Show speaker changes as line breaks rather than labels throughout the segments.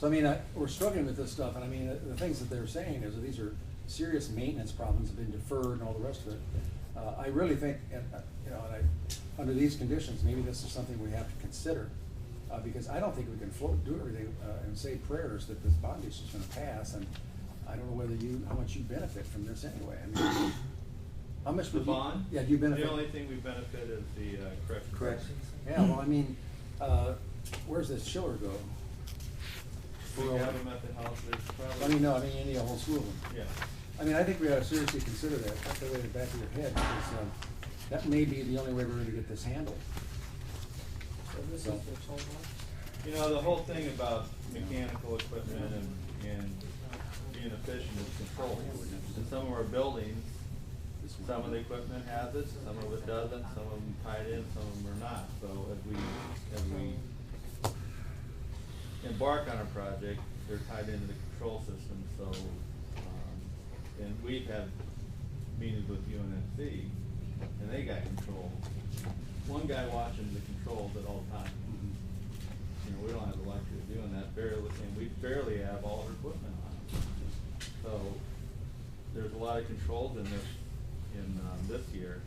So I mean, I, we're struggling with this stuff, and I mean, the, the things that they're saying is that these are serious maintenance problems have been deferred and all the rest of it. Uh, I really think, and, uh, you know, and I, under these conditions, maybe this is something we have to consider. Uh, because I don't think we can float, do everything, uh, and say prayers that this bond issue is gonna pass, and I don't know whether you, how much you benefit from this anyway. I mean, How much
The
would you?
bond?
Yeah, do you benefit?
The only thing we benefit is the uh, correction.
Corrections. Yeah, well, I mean, uh, where's this chiller go?
We have them at the house, there's probably.
I mean, no, I mean, any, a whole slew of them.
Yeah.
I mean, I think we ought to seriously consider that, that's the way in the back of your head, because, um, that may be the only way we're gonna get this handled.
So this is the
So-
total?
You know, the whole thing about mechanical equipment and, and being efficient is control. And some of our buildings, some of the equipment has it, some of it doesn't, some of them tied in, some of them are not. So if we, if we embark on a project, they're tied into the control system, so, um, and we've had meetings with UNFC, and they got control. One guy watching the controls at all times. You know, we don't have the luxury of doing that barely, and we barely have all our equipment on. So, there's a lot of controls in this, in, um, this year,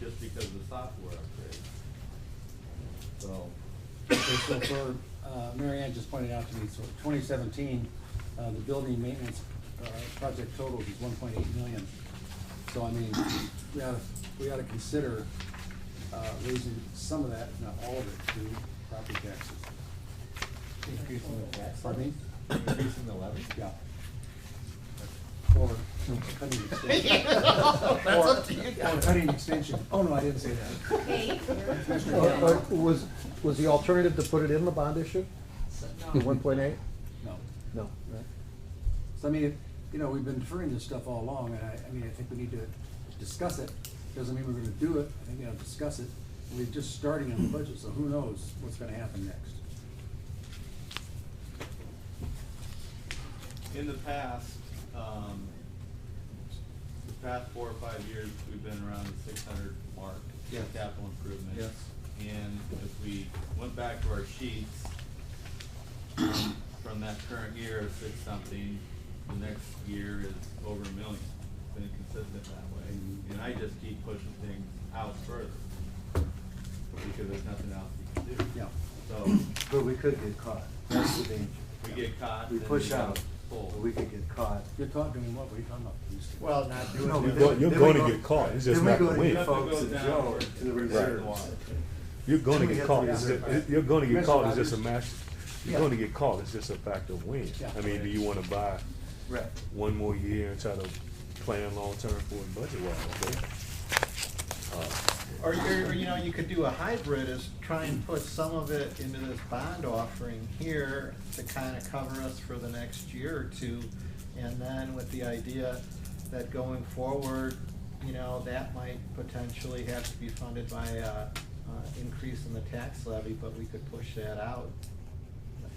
just because of the software upgrade. So,
Okay, so for, uh, Mary Ann just pointed out to me, so twenty seventeen, uh, the building maintenance, uh, project total is one point eight million. So I mean, we ought to, we ought to consider, uh, raising some of that, if not all of it, to property taxes.
Increasing the tax
Pardon me?
increasing the levy?
Yeah. Or cutting extension.
That's up to you
Or- Or cutting extension. Oh, no, I didn't say that.
Um,
Okay.
Commissioner
Or- or
Campbell?
Was, was the alternative to put it in the bond issue,
So,
the
no.
one point eight?
No.
No, right?
So I mean, if- you know, we've been deferring this stuff all along, and I, I mean, I think we need to discuss it. Doesn't mean we're gonna do it, I think we gotta discuss it. We're just starting on the budget, so who knows what's gonna happen next?
in the past, um, the past four or five years, we've been around the six hundred mark.
Yes.
for Capital improvement.
Yes.
And if we went back to our sheets um, from that current year of six something, the next year is over a million. It's been consistent that way,
Mm-hmm.
and I just keep pushing things out further because there's nothing else we can do.
Yeah.
So,
But we could get caught. That's the danger.
we get caught.
We
then
push
gotta
out,
pull.
but we could get caught.
You're talking, doing what, what are you talking about?
Well, not doing
No,
it.
but
Well,
then-
you're
then
going
we
to
go-
get caught. It's
then
just
we
not
go
the
to
way.
the folks
Nothing
at
goes
Joe
down.
to the reserves.
You're going to
We
get
have
caught.
to
It's
have
ju-
it.
it- You're going to get
Mr.
caught. It's
Rogers.
just a matter. You're
Yeah.
going to get caught. It's just a factor of when.
Yeah.
I mean, do you want to buy
Right.
one more year and try to plan long term for it budget wise?
Or, or, or, you know, you could do a hybrid, is try and put some of it into this bond offering here to kind of cover us for the next year or two. And then with the idea that going forward, you know, that might potentially have to be funded by a, uh, increase in the tax levy, but we could push that out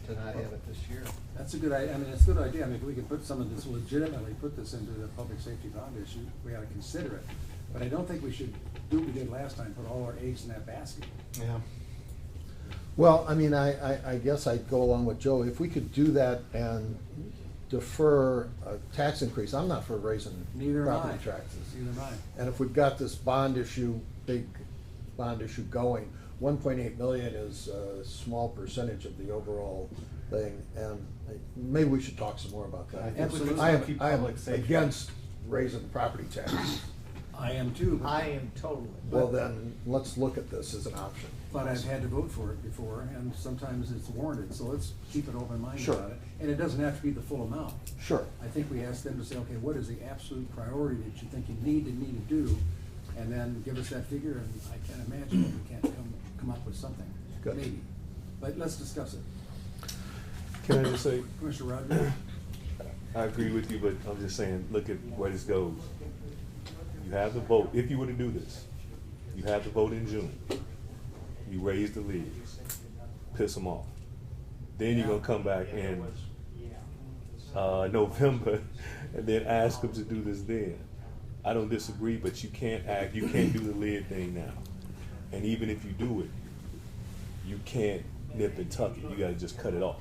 to not have it this year.
That's a good idea, I mean, it's a good idea, I mean, if we could put some of this, legitimately put this into the public safety bond issue, we ought to consider it. But I don't think we should do what we did last time, put all our eggs in that basket.
Yeah.
Well, I mean, I, I, I guess I'd go along with Joe, if we could do that and defer a tax increase, I'm not for raising
Neither am I.
property taxes.
Neither am I.
And if we've got this bond issue, big bond issue going, one point eight million is a small percentage of the overall thing, and I- maybe we should talk some more about that.
I think
we could
I am-
keep
I am
public safety.
against raising property taxes.
I am too,
I
but,
am totally.
Well, then, let's look at this as an option.
but I've had to vote for it before, and sometimes it's warranted, so let's keep an open mind
Sure.
about it. And it doesn't have to be the full amount.
Sure.
I think we ask them to say, okay, what is the absolute priority that you think you need and need to do? And then give us that figure, and I can't imagine that we can't come, come up with something,
Good.
maybe. But let's discuss it.
Can I just say,
Commissioner Rogers?
I agree with you, but I'm just saying, look at where this goes. You have the vote, if you were to do this, you have the vote in June. You raise the leagues, piss them off. Then you're gonna come back in, uh, November, and then ask them to do this then. I don't disagree, but you can't act, you can't do the lid thing now. And even if you do it, you can't nip and tuck it, you gotta just cut it off.